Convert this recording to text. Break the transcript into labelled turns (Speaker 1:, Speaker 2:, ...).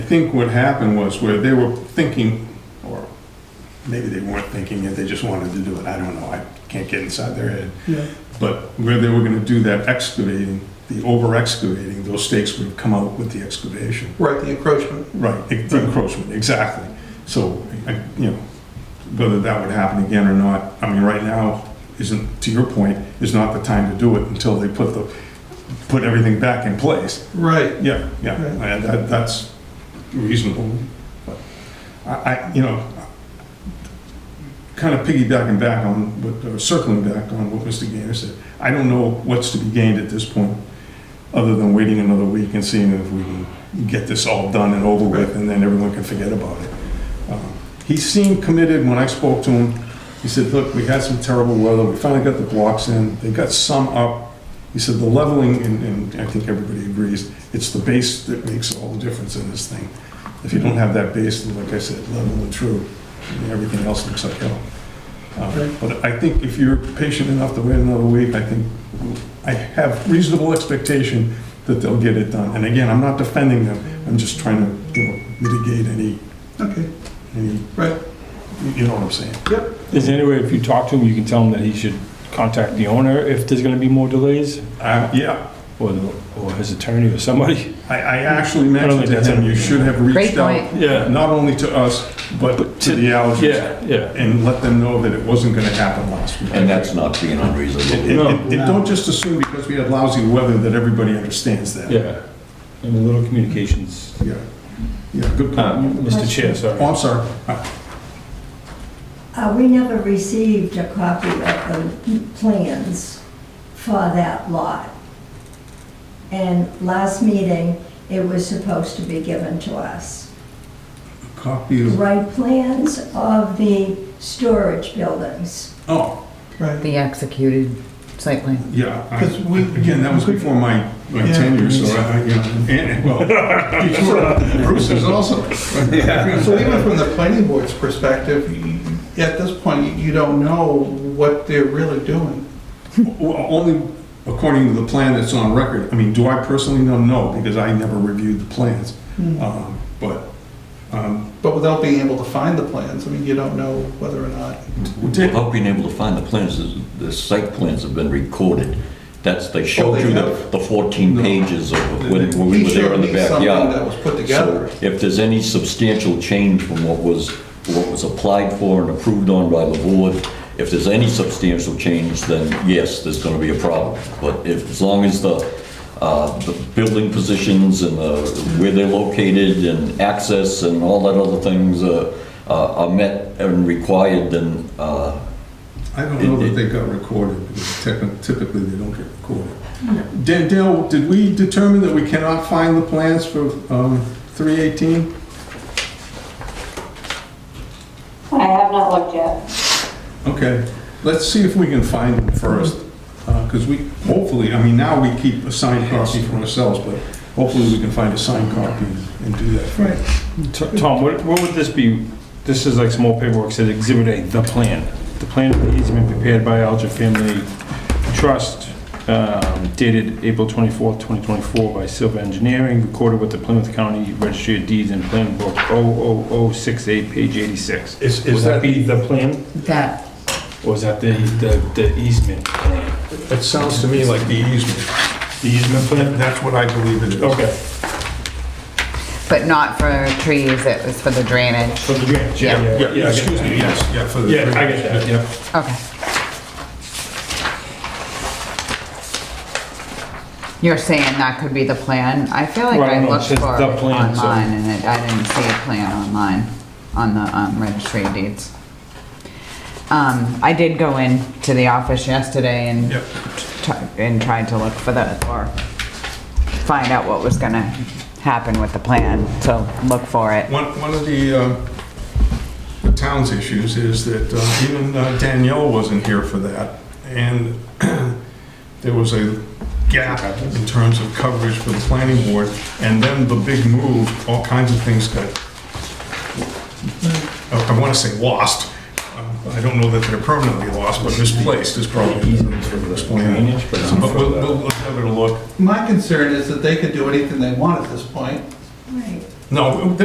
Speaker 1: think what happened was where they were thinking, or maybe they weren't thinking it, they just wanted to do it, I don't know, I can't get inside their head.
Speaker 2: Yeah.
Speaker 1: But where they were gonna do that excavating, the over excavating, those stakes would have come out with the excavation.
Speaker 2: Right, the encroachment.
Speaker 1: Right, the encroachment, exactly. So, I- you know, whether that would happen again or not, I mean, right now isn't, to your point, is not the time to do it until they put the, put everything back in place.
Speaker 2: Right,
Speaker 1: Yeah, yeah,
Speaker 2: Right.
Speaker 1: and that, that's reasonable. But I, I, you know, kind of piggybacking back on, what- or circling back on what Mr. Gainer said, I don't know what's to be gained at this point, other than waiting another week and seeing if we can get this all done and over with, and then everyone can forget about it. Um, He seemed committed when I spoke to him. He said, look, we had some terrible weather, we finally got the blocks in, they got some up. He said, the leveling, and, and I think everybody agrees, it's the base that makes all the difference in this thing. If you don't have that base, then like I said, level and true, and everything else looks like hell. Uh,
Speaker 2: Right.
Speaker 1: But I think if you're patient enough to wait another week, I think, I have reasonable expectation that they'll get it done. And again, I'm not defending them, I'm just trying to, you know, mitigate any,
Speaker 2: okay,
Speaker 1: any,
Speaker 2: right,
Speaker 1: you know what I'm saying?
Speaker 2: yep.
Speaker 3: Is there any way, if you talk to him, you can tell him that he should contact the owner if there's gonna be more delays?
Speaker 1: Uh, yeah,
Speaker 3: Or, the- or his attorney or somebody?
Speaker 1: I, I actually
Speaker 3: I don't
Speaker 1: mentioned
Speaker 3: think
Speaker 1: to
Speaker 3: that's
Speaker 1: him, you
Speaker 3: anything.
Speaker 1: should have
Speaker 4: Great
Speaker 1: reached out,
Speaker 4: point.
Speaker 3: Yeah.
Speaker 1: not only to us, but
Speaker 3: But
Speaker 1: to
Speaker 3: to-
Speaker 1: the allergists.
Speaker 3: Yeah, yeah.
Speaker 1: And let them know that it wasn't gonna happen last week.
Speaker 5: And that's not being unreasonable.
Speaker 1: And-
Speaker 3: No.
Speaker 1: And and don't just assume because we had lousy weather that everybody understands that.
Speaker 3: Yeah. I mean, little communications.
Speaker 1: Yeah, yeah, good point.
Speaker 3: Um, Mr. Chair,
Speaker 1: Oh,
Speaker 3: sorry.
Speaker 1: I'm sorry. Uh,
Speaker 6: Uh, We never received a copy of the plans for that lot. And last meeting, it was supposed to be given to us.
Speaker 1: Copy of,
Speaker 6: Right plans of the storage buildings.
Speaker 1: oh,
Speaker 2: Right,
Speaker 4: The executed site plan.
Speaker 1: yeah. I-
Speaker 2: 'Cause we-
Speaker 1: Again, that was before my my
Speaker 2: Yeah.
Speaker 1: tenure, so I, I, you know, and, well, before Bruce is also.
Speaker 2: so even from the planning board's perspective, you- at this point, you- you don't know what they're really doing.
Speaker 1: Well, Only according to the plan that's on record. I mean, do I personally know? No, because I never reviewed the plans. Um, But um,
Speaker 2: But without being able to find the plans, I mean, you don't know whether or not,
Speaker 1: did,
Speaker 5: Without being able to find the plans, the- the site plans have been recorded. That's, they showed you the the 14 pages of when when we
Speaker 2: he
Speaker 5: were there
Speaker 2: showed
Speaker 5: in the
Speaker 2: me something that
Speaker 5: backyard.
Speaker 2: was put
Speaker 5: So
Speaker 2: together.
Speaker 5: if there's any substantial change from what was, what was applied for and approved on by the board, if there's any substantial change, then yes, there's gonna be a problem. But if, as long as the, uh, the building positions and the, where they're located and access and all that other things uh, uh, are met and required, then, uh,
Speaker 1: I don't know that they got recorded. because typ- Typically, they don't get recorded. Dan- Dale, did we determine that we cannot find the plans for um, 318?
Speaker 7: I have not looked yet.
Speaker 1: Okay, let's see if we can find them first, because we, hopefully, I mean, now we keep a signed copy for ourselves, but hopefully we can find a signed copy and do that.
Speaker 2: Right,
Speaker 3: T- Tom, what, what would this be? This is like some more paperwork, says Exhibit A, the plan. The plan of the easement prepared by Alger Family Trust um, dated April 24th, 2024 by Silva Engineering, recorded with the Plymouth County Registry of Deeds and Plan Book 00068, page 86.
Speaker 1: Is,
Speaker 3: Would
Speaker 1: is
Speaker 3: that
Speaker 1: that,
Speaker 3: be the plan,
Speaker 4: That,
Speaker 3: or is that the, the- the easement plan?
Speaker 1: it sounds to me like the easement.
Speaker 3: The
Speaker 1: That-
Speaker 3: easement plan?
Speaker 1: That's what I believe it is.
Speaker 3: Okay,
Speaker 4: but not for trees, it was for the drainage.
Speaker 3: for the drainage, yeah, yeah, yeah. I
Speaker 1: Yeah,
Speaker 3: get
Speaker 1: excuse
Speaker 3: that.
Speaker 1: me, yes, yeah, for the.
Speaker 3: Yeah, I get that, yeah.
Speaker 4: Okay. You're saying that could be the plan? I feel like
Speaker 3: Right,
Speaker 4: I
Speaker 3: no, it
Speaker 4: looked
Speaker 3: says
Speaker 4: for it
Speaker 3: the plan, so-
Speaker 4: online and it- I didn't see a plan online on the um, registry of deeds. Um, I did go into the office yesterday and,
Speaker 1: Yep.
Speaker 4: t- and tried to look for the, or find out what was gonna happen with the plan, so look for it.
Speaker 1: One, one of the, uh, the town's issues is that uh, even uh, Danielle wasn't here for that. And there was a gap in terms of coverage for the planning board. And then the big move, all kinds of things got, I want to say lost. Uh, I don't know that they're permanently lost, but misplaced is probably the best way to explain
Speaker 3: Drainage,
Speaker 1: it.
Speaker 3: but
Speaker 1: So,
Speaker 3: not
Speaker 1: But
Speaker 3: for
Speaker 1: we'll,
Speaker 3: the-
Speaker 1: we'll have it a look.
Speaker 2: my concern is that they could do anything they want at this point.
Speaker 6: Right.
Speaker 1: No,